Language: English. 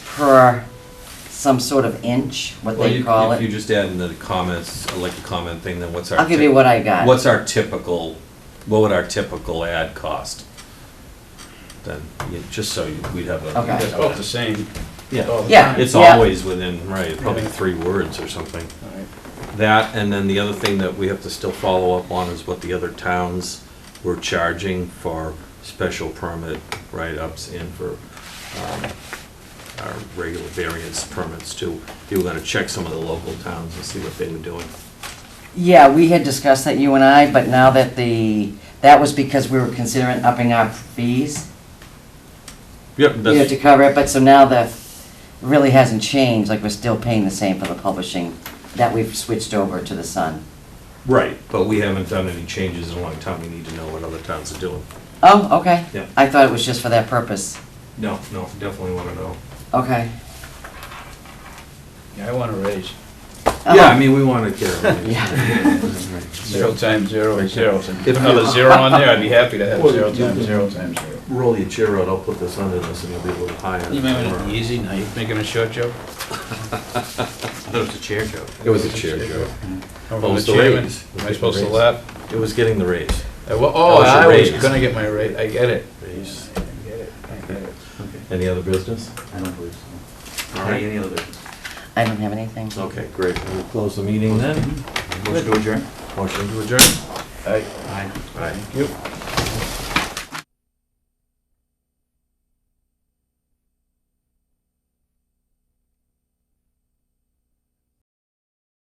per some sort of inch, what Well, they you- call If you it. just add in the comments, uh, like a comment thing, then what's our? I'll give tip- you what I got. What's our typical, what would our typical ad cost? Then, yeah, just so you- we'd have a. Okay. It's both the same. Oh. Yeah, Yeah. it's yeah. always within, right, probably three words or something. That, and then the other thing that we have to still follow up on is what the other towns were charging for special permit write-ups and for um, our regular variance permits too. You were gonna check some of the local towns and see what they were doing. Yeah, we had discussed that, you and I, but now that the, that was because we were considering upping our fees, Yep, you know, to that's, cover it, but so now the, it really hasn't changed, like we're still paying the same for the publishing that we've switched over to the Sun. right, but we haven't done any changes in a long time. We need to know what other towns are doing. Oh, okay. Yeah. I thought it was just for that purpose. No, no, definitely wanna know. Okay. Yeah, I want to raise. Yeah, I mean, we wanna get. everything. Oh. Yeah. Zero times zero is zero. Put If- another zero on there, I'd be happy to have zero times zero times zero. Roll your chair out, I'll put this under this and it'll be a little higher. You remember the easy, now you're making a short joke? That was a chair joke. It was a chair joke. Oh, I'm Well, the it's the chairman. raise. Am I supposed to Raise. laugh? It was getting the raise. Uh, well, Oh, That was your I was raise. gonna get my raise, I get it. Raise. I get it. I get it. Any other business? I don't believe so. All Any- right. Any other? I don't have anything. Okay, great. We'll close the meeting then. Motion to adjourn? Motion to adjourn. I- Aye. Aye. Thank you.